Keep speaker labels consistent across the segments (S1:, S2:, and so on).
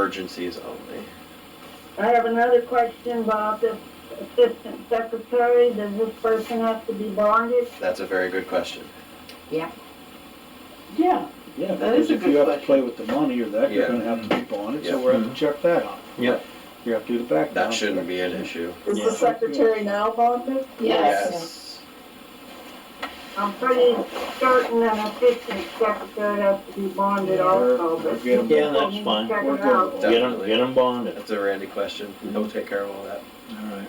S1: emergencies only.
S2: I have another question about the assistant secretary. Does this person have to be bonded?
S1: That's a very good question.
S3: Yeah,
S4: Yeah,
S3: That is
S4: because
S3: a
S4: if
S3: good
S4: you have to
S3: question.
S4: play with the money or that, you're
S1: Yeah.
S4: gonna have to keep on it, so
S1: Yeah.
S4: we're gonna have to check that out.
S1: Yep.
S4: You have to do the background.
S1: That shouldn't be an issue.
S2: Is
S4: Yeah.
S2: the secretary now bonded?
S3: yes.
S2: I'm pretty certain an assistant secretary has to be bonded
S4: Yeah,
S2: also,
S4: we'll
S2: but.
S4: get 'em-
S5: Yeah,
S2: Let me
S5: that's fine.
S2: check
S4: We're
S2: it
S4: good.
S2: out.
S5: Get them, get them bonded.
S1: That's a Randy question.
S4: Mm-hmm.
S1: He'll take care of all that.
S4: Alright.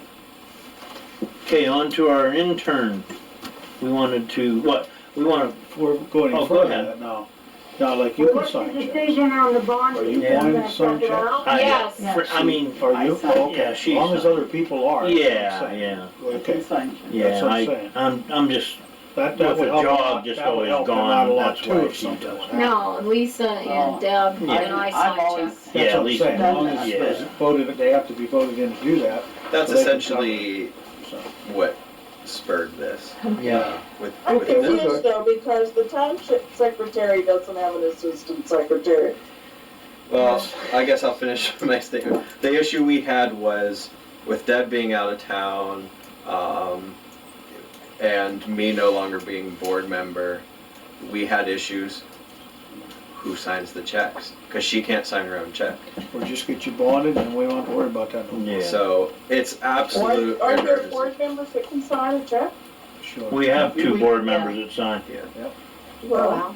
S5: Okay, on to our intern. We wanted to, what, we want to,
S4: We're going
S5: Oh,
S4: in
S5: go
S4: front
S5: ahead.
S4: of that now. Now, like you can
S2: What's the
S4: sign checks.
S2: decision on the bond?
S4: Are you
S5: Yeah.
S4: wanting
S2: Gonna
S4: to sign
S2: check it
S4: checks?
S2: out?
S5: I-
S6: Yes.
S3: Yeah.
S5: I mean,
S4: Are you? Oh,
S3: I sign.
S4: Okay.
S5: Yeah, she
S4: As long as
S5: signed.
S4: other people are. that's what I'm
S5: yeah,
S4: saying.
S5: yeah,
S4: Okay,
S5: yeah,
S4: That's what I'm
S5: I,
S4: saying.
S5: I'm, I'm just,
S4: that, that
S5: With
S4: would
S5: the
S4: help. a
S5: job
S4: lot.
S5: just
S4: That would
S5: always
S4: help them
S5: gone,
S4: out a lot
S5: that's
S4: too
S5: why
S4: if
S5: she
S4: something
S5: does.
S4: like that.
S6: No, Lisa and Deb and
S5: Oh. Yeah.
S6: I
S3: I'm
S6: signed
S3: always,
S6: checks.
S5: yeah,
S4: That's
S5: at
S4: what I'm
S5: least.
S4: saying, as long
S3: Yeah.
S4: as it's voted, they have to be voted in to do that,
S1: That's
S4: So they can
S1: essentially
S4: so.
S1: what spurred this.
S5: Yeah.
S1: With,
S7: I'm
S1: with this.
S7: confused though, because the township secretary doesn't have an assistant secretary.
S1: Well, I guess I'll finish my statement. The issue we had was with Deb being out of town, um, and me no longer being board member, we had issues. Who signs the checks? Because she can't sign her own check.
S4: Or just get you bonded and we won't have to worry about that. no more.
S5: Yeah,
S1: So it's absolute
S7: Aren't aren't there
S1: emergency.
S7: board members that can sign a check?
S4: Sure.
S5: we have two
S3: We-
S5: board
S3: yeah.
S5: members that sign.
S7: Well,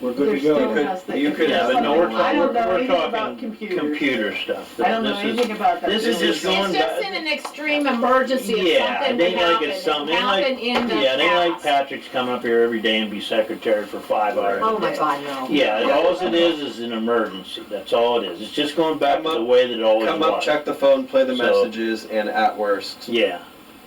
S4: We're good to
S3: There's still
S1: You
S4: go.
S1: could-
S3: has the-
S1: you could
S5: Yeah, but no, we're
S3: I
S5: talking,
S3: don't know
S5: we're
S3: anything about
S5: talking
S3: computers.
S5: computer stuff.
S3: I don't know
S5: This is-
S3: anything about that.
S5: this is
S6: It's
S5: just going back-
S6: just in an extreme emergency if
S5: Yeah,
S6: something
S5: they
S6: would
S5: like
S6: happen.
S5: it's
S6: It
S5: something- they like-
S6: happened in the
S5: Yeah, they like
S6: past.
S5: Patrick's coming up here every day and be secretary for five hours.
S6: Oh my God, no.
S5: Yeah, and alls it is is an emergency, that's all it is. It's just going back to
S1: Come
S5: the way that it always
S1: Come up,
S5: was.
S1: check the phone, play the
S5: So-
S1: messages, and at worst,
S5: Yeah,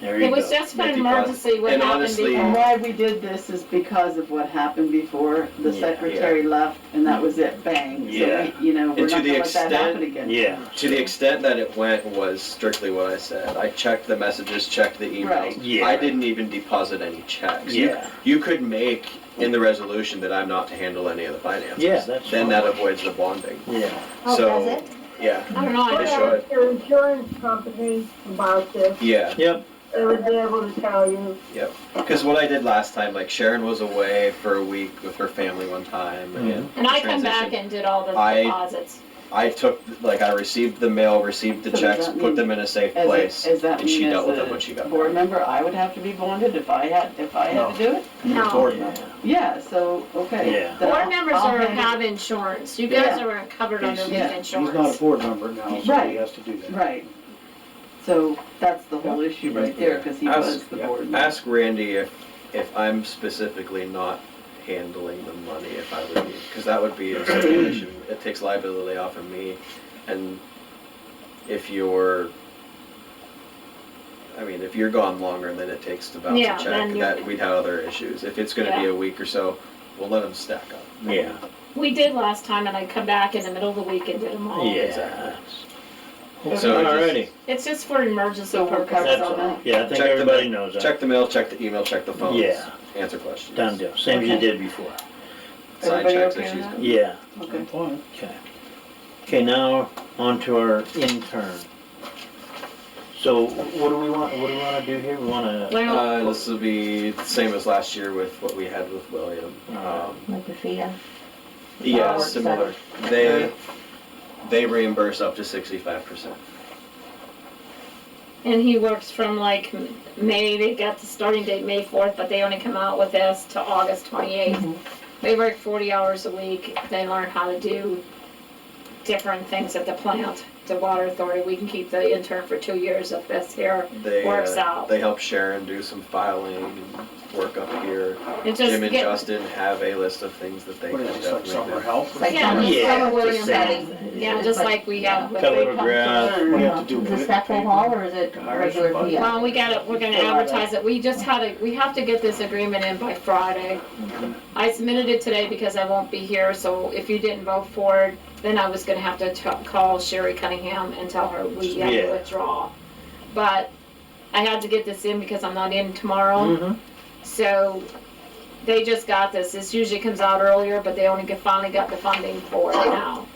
S5: there you
S6: It was
S5: go.
S6: just for an
S1: Fifty bucks.
S6: emergency what
S1: And
S6: happened
S1: honestly-
S3: And
S6: before.
S3: why we did this is because of what happened before, the
S5: Yeah.
S3: secretary left, and that was it, bang. So we-
S5: Yeah.
S3: You know, we're
S1: And to
S3: not
S1: the
S3: gonna let that
S1: extent-
S3: happen again.
S5: Yeah,
S1: to the extent that it went was strictly what I said. I checked the messages, checked the
S3: Right.
S1: emails.
S5: Yeah.
S1: I didn't even deposit any checks. You
S5: yeah,
S1: You could make in the resolution that I'm not to handle any of the finances.
S5: Yeah, that's
S1: Then
S5: fine.
S1: that avoids the bonding.
S5: yeah.
S6: Oh,
S1: so,
S6: does it?
S1: Yeah,
S6: I don't know, I
S2: What
S1: It
S6: just,
S1: should.
S2: asked your insurance company about this,
S1: yeah.
S5: Yep,
S2: they would be able to tell you.
S1: Because what I did last time, like Sharon was away for a week with her family one time,
S5: Mm-hmm.
S1: and
S6: and I come back
S1: transition.
S6: and did all the
S1: I-
S6: deposits.
S1: I took like I received the mail, received the
S3: So does
S1: checks,
S3: that
S1: put
S3: mean-
S1: them in a safe
S3: As a-
S1: place,
S3: as that
S1: and she
S3: mean as
S1: dealt with them
S3: a
S1: when she got
S3: Board
S1: back.
S3: member, I would have to be bonded if I had, if I had to do it?
S6: No.
S4: Board
S5: yeah,
S4: member.
S3: Yeah, so, okay.
S5: Yeah.
S3: then
S6: Board
S3: I'll-
S6: members
S3: I'll
S6: are,
S3: hand it-
S6: have insurance, you guys
S3: Yeah.
S6: are covered under
S4: He's-
S6: the
S3: yeah,
S4: He's not a
S6: insurance.
S4: board member now, so he
S3: Right.
S4: has to do that.
S3: Right. So that's the whole issue right there, because he
S1: Ask-
S3: was the
S4: yeah.
S3: board member.
S1: Ask Randy if if I'm specifically not handling the money if I would be, because that would be a situation. It takes liability off of me, and if you're, I mean, if you're gone longer than it takes to bounce
S6: Yeah,
S1: a
S6: then
S1: check,
S6: you-
S1: that we'd have other issues. If it's going to be a week or so, we'll let them stack up.
S5: yeah,
S6: We did last time and I come back in the middle of the week and did them all.
S5: yeah.
S1: So
S5: Alrighty,
S6: It's just for emergency
S3: So we're covered
S5: that's
S6: purposes.
S3: on
S5: all,
S3: that?
S5: yeah, I think
S1: Check the
S5: everybody
S1: mail.
S5: knows that.
S1: Check the mail, check the email, check the phones.
S5: Yeah.
S1: Answer questions.
S5: Done deal, same as you did before.
S1: Sign
S3: Everybody
S1: checks,
S3: okay with
S1: issues.
S3: that?
S5: Yeah,
S3: Okay.
S4: Fine.
S5: Okay. Okay, now on to our intern. So what do we want, what do we wanna do here? We wanna,
S6: Well,
S1: Uh, this will be the same as last year with what we had with William. Um,
S6: Like the fear.
S1: yeah,
S6: Fireworks
S1: similar. They, they reimburse up to sixty-five percent.
S6: And he works from like M- May, they got the starting date May fourth, but they only come out with us to August twenty-eighth. They work forty hours a week, they learn how to do different things at the plant, the water authority, we can keep the intern for two years if this here
S1: They,
S6: works
S1: uh,
S6: out.
S1: they help Sharon do some filing and work up here.
S6: It just
S1: Jim and
S6: get,
S1: Justin have a list of things that they
S4: What
S1: can
S4: is this, like
S1: definitely
S4: summer
S1: do.
S4: help? or
S8: Like
S6: yeah,
S4: something?
S6: just
S5: Yeah,
S6: like
S5: it's
S6: William
S5: the same.
S6: said, yeah, just like we have with.
S5: Cut a
S8: They
S5: little
S8: come to
S5: grass.
S8: learn,
S4: What do you
S8: uh,
S4: have to do
S8: Is
S4: with it?
S8: this Stepwell Hall or is it
S4: Hire
S8: regular
S4: somebody?
S8: PO?
S6: Well, we gotta, we're gonna advertise it, we just had a, we have to get this agreement in by Friday. I submitted it today because I won't be here, so if you didn't vote for it, then I was gonna have to t- call Sherry Cunningham and tell her we have to
S5: Yeah.
S6: withdraw. But I had to get this in because I'm not in tomorrow,
S5: Mhm.
S6: so they just got this, this usually comes out earlier, but they only get- finally got the funding for it now.